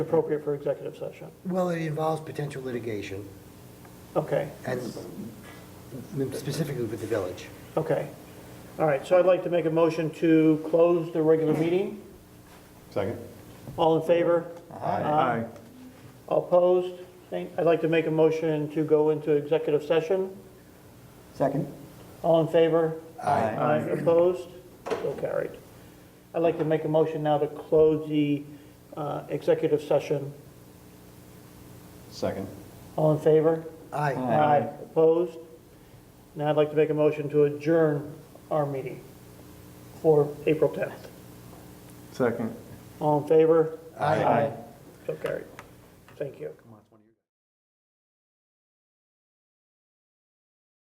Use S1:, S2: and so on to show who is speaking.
S1: appropriate for executive session.
S2: Well, it involves potential litigation,
S1: Okay,
S2: and specifically with the village.
S1: okay. All right, so I'd like to make a motion to close the regular meeting.
S3: Second?
S1: All in favor? Aye. All Opposed? Thank- I'd like to make a motion to go into executive session.
S4: Second?
S1: All in favor?
S4: Aye.
S1: Aye. Opposed? So carried. I'd like to make a motion now to close the uh, executive session.
S3: Second.
S1: All in favor?
S2: Aye.
S1: Aye. Opposed? Now I'd like to make a motion to adjourn our meeting for April 10th.
S4: Second.
S1: All in favor?
S2: Aye.
S1: So carried. Thank you.